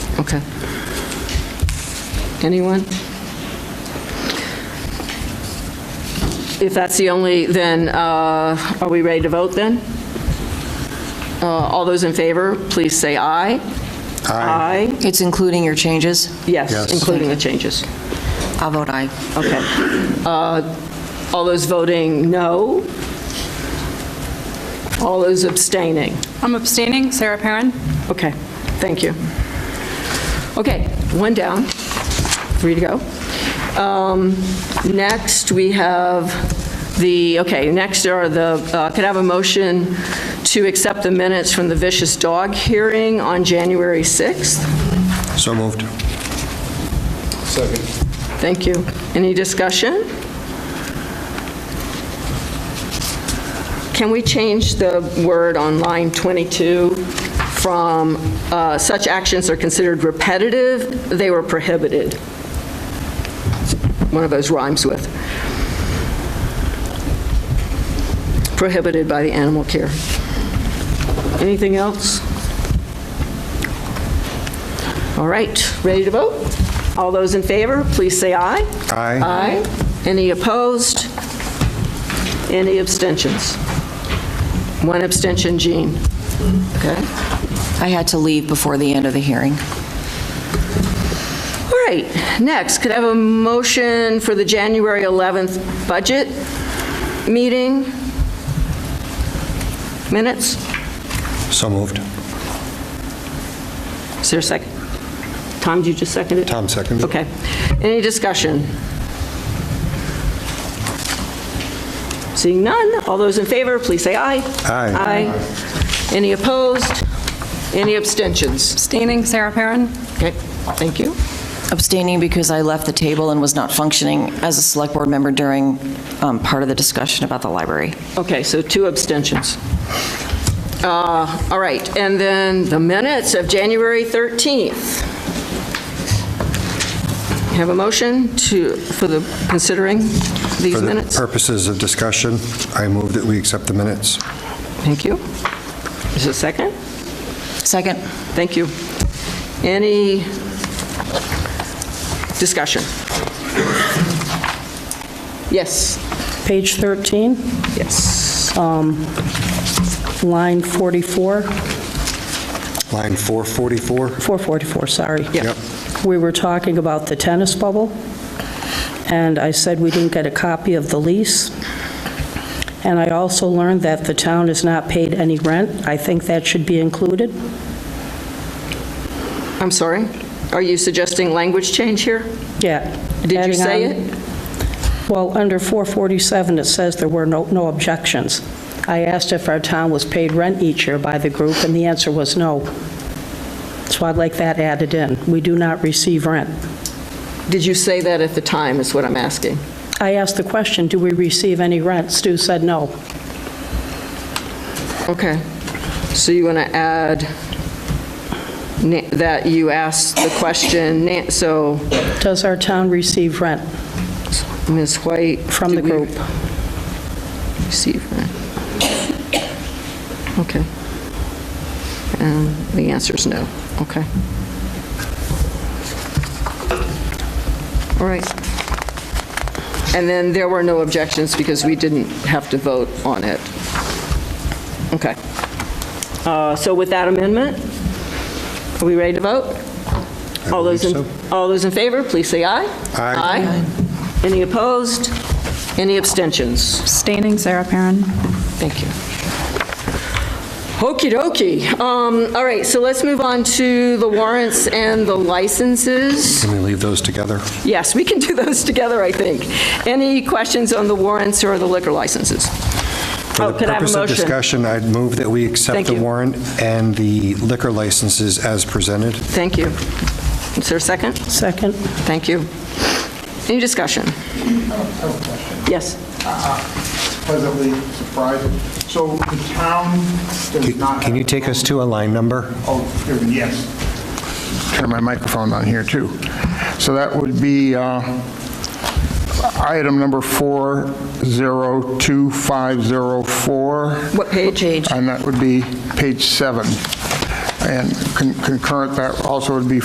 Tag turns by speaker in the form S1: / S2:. S1: Okay. Anyone? If that's the only, then uh, are we ready to vote then? Uh, All those in favor, please say aye.
S2: Aye.
S3: It's including your changes?
S1: Yes,
S2: Yes.
S1: including the changes.
S3: I'll vote aye.
S1: Okay. Uh, All those voting no? All those abstaining?
S4: I'm abstaining, Sarah Perrin.
S1: Okay, thank you. Okay, one down, three to go. Um, Next, we have the, okay, next are the, uh, could I have a motion to accept the minutes from the vicious dog hearing on January 6th?
S2: So moved.
S1: Thank you. Any discussion? Can we change the word on line 22 from uh, "such actions are considered repetitive, they were prohibited"? One of those rhymes with. Prohibited by the animal care. Anything else? All right, ready to vote? All those in favor, please say aye.
S2: Aye.
S1: Aye. Any opposed? Any abstentions? One abstention, Jean. Okay.
S3: I had to leave before the end of the hearing.
S1: All right, next, could I have a motion for the January 11th budget meeting? Minutes?
S2: So moved.
S1: Is there a second? Tom, did you just second it?
S2: Tom seconded.
S1: Okay. Any discussion? Seeing none, all those in favor, please say aye.
S2: Aye.
S1: Aye. Any opposed? Any abstentions?
S4: Abstaining, Sarah Perrin.
S1: Okay, thank you.
S3: Abstaining because I left the table and was not functioning as a Select Board member during um, part of the discussion about the library.
S1: Okay, so two abstentions. Uh, All right, and then the minutes of January 13th. Have a motion to, for the, considering
S2: For
S1: these
S2: the
S1: minutes?
S2: purposes of discussion, I move that we accept the minutes.
S1: Thank you. Is there a second?
S3: Second?
S1: Thank you. Any discussion? Yes,
S5: Page 13,
S1: yes.
S5: line 44,
S2: Line 444?
S5: 444, sorry.
S1: Yeah.
S2: Yep.
S5: We were talking about the tennis bubble, and I said we didn't get a copy of the lease. And I also learned that the town has not paid any rent. I think that should be included.
S1: I'm sorry. Are you suggesting language change here?
S5: Yeah.
S1: Did you
S5: adding
S1: say
S5: on- Well, under 447, it says there were no no objections. I asked if our town was paid rent each year by the group, and the answer was no. So I'd like that added in. We do not receive rent.
S1: Did you say that at the time, is what I'm asking?
S5: I asked the question, do we receive any rent? Stu said no.
S1: Okay. So you want to add na- that you asked the question, na- so
S5: Does our town receive rent?
S1: Ms. White?
S5: From the
S1: did we
S5: group.
S1: Receive that. Okay. And the answer is no. Okay. All right. And then there were no objections because we didn't have to vote on it. Okay. Uh, So with that amendment, are we ready to vote? All those in,
S2: believe
S1: all those in favor, please say aye.
S2: Aye.
S1: Aye. Any opposed? Any abstentions?
S4: Abstaining, Sarah Perrin.
S1: Thank you. Okey dokey. Um, All right, so let's move on to the warrants and the licenses.
S2: Can we leave those together?
S1: Yes, we can do those together, I think. Any questions on the warrants or the liquor licenses? Oh, could I have a
S2: For the purpose of
S1: motion?
S2: discussion, I'd move that we
S1: Thank
S2: accept the
S1: you.
S2: warrant and the liquor licenses as presented.
S1: Thank you. Is there a second?
S5: Second?
S1: Thank you. Any discussion? Yes.
S6: pleasantly surprised. So the town does not have...
S2: Can you take us to a line number?
S6: Oh, there- yes. Turn my microphone on here, too. So that would be uh, item number 402504.
S1: What page?
S6: And that would be page seven. And con- concurrent, that also would be